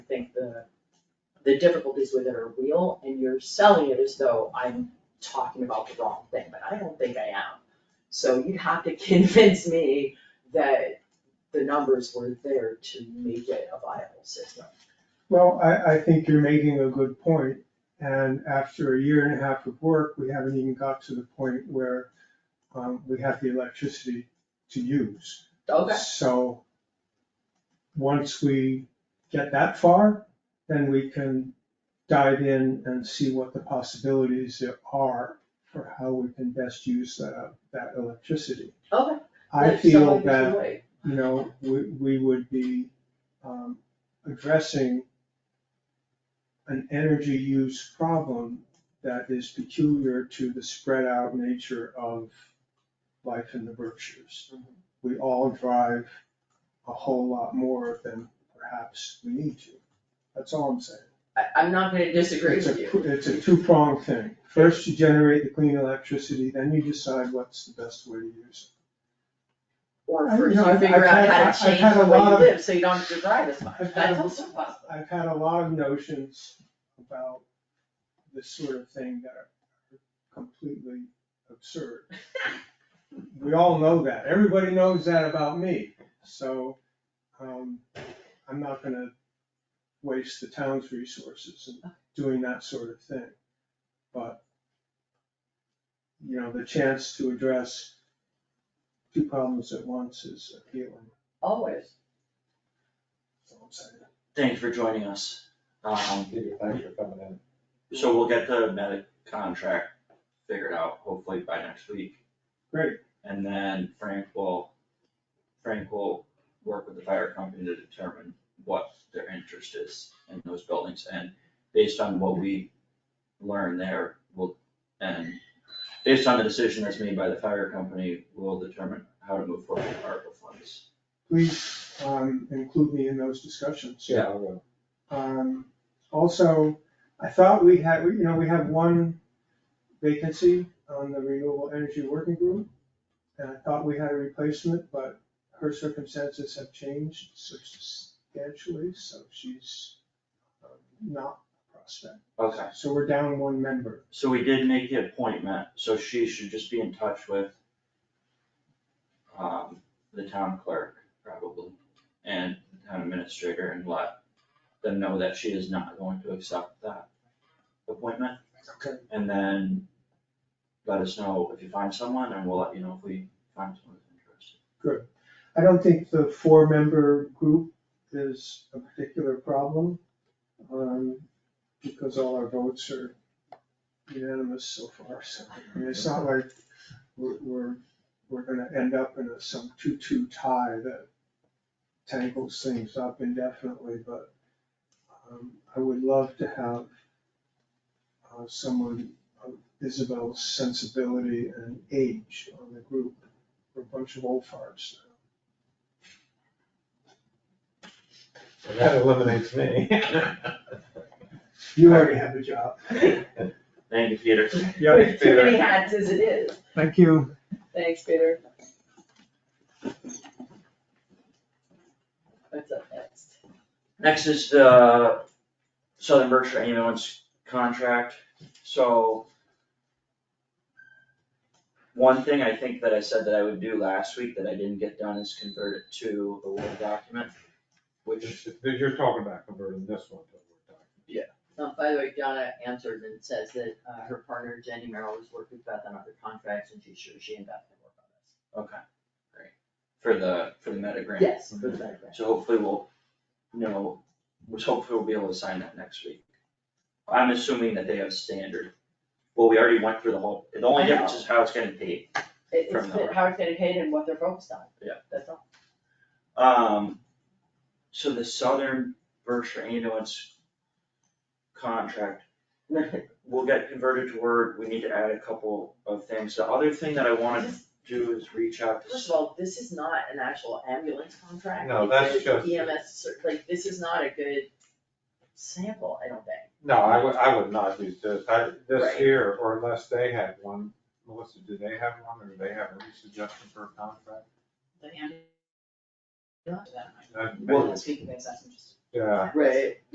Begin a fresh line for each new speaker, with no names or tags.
think the, the difficulties with it are real, and you're selling it as though I'm talking about the wrong thing, but I don't think I am. So you'd have to convince me that the numbers were there to make it a viable system.
Well, I, I think you're making a good point, and after a year and a half of work, we haven't even got to the point where um, we have the electricity to use. So, once we get that far, then we can dive in and see what the possibilities there are for how we can best use that, that electricity.
Okay.
I
Like, so
feel
there's a
that
way.
you know, we, we would be, um, addressing an energy use problem that is peculiar to the spread out nature of life in the Berkshires.
Mhm.
We all drive a whole lot more than perhaps we need to. That's all I'm saying.
I, I'm not gonna disagree
It's
with
a,
you.
it's a two-pronged thing. First, you generate the clean electricity, then you decide what's the best way to use
Or
I- you
first
know,
you
I've-
figure
I've
out
had-
how
I've
to change
had a
the way you
lot of-
live, so you don't have to drive as much,
I've had
that's
a-
also possible.
it. I've had a lot of notions about this sort of thing that are completely absurd. We all know that. Everybody knows that about me. So, um, I'm not gonna waste the town's resources in doing that sort of thing. But, you know, the chance to address two problems at once is appealing,
Always.
that's all I'm saying.
Thanks for joining us. Um,
Thanks for coming in.
so we'll get the medic contract figured out hopefully by next week.
Great.
And then Frank will, Frank will work with the fire company to determine what their interest is in those buildings. And based on what we learn there, we'll, and based on the decision that's made by the fire company, we'll determine how to move forward with ARPA funds.
please um include me in those discussions.
Yeah, I will.
Um also, I thought we had, we- you know, we have one vacancy on the renewable energy working group. And I thought we had a replacement, but her circumstances have changed substantially, so she's um, not a prospect.
Okay.
So we're down one member.
So we did make the appointment, so she should just be in touch with um, the town clerk probably and the town administrator and let them know that she is not going to accept that appointment.
Okay.
And then let us know if you find someone and we'll let you know if we find someone who's interested.
I don't think the four-member group is a particular problem, um, because all our votes are unanimous so far, so, I mean, it's not like we're, we're, we're gonna end up in a, some two-two tie that tangles things up indefinitely, but, um, I would love to have uh, someone of Isabel's sensibility and age on the group, we're a bunch of old farts now.
And that eliminates me.
You already have a job.
Thank you, Peter.
Yeah.
With too many hats as it is.
Thank you.
Thanks, Peter. What's up next?
Next is the uh, Southern Berkshire ambulance contract, so. One thing I think that I said that I would do last week that I didn't get done is convert it to the Word document, which,
You're talking about converting this one to a Word document.
Uh, by the way, Donna answered and says that, uh, her partner Jenny Merrill has worked with Beth on other contracts and she's sure she and Beth can work on this.
okay, great, for the, for the meta grant.
Yes,
Mm-hmm.
good background.
So hopefully we'll know, which hopefully we'll be able to sign that next week. I'm assuming that they have standard, well, we already went through the whole, the only
I know.
difference is how it's getting paid.
It- It's
From the-
that how it's getting paid and what they're focused on.
Yeah.
That's all.
Um, so the Southern Berkshire ambulance contract will get converted to Word, we need to add a couple of things, the other thing that I wanna
This-
do is reach out to.
First of all, this is not an actual ambulance contract.
No,
It's
that's
a
just-
EMS, cer- like, this is not a good sample, I don't think.
No, I would, I would not use this, I, this
Right.
here, or unless they had one, Melissa, do they have one, or do they have any suggestion for a contract?
the hand-
That-
Well, speaking of, that's just.
Yeah.
Right.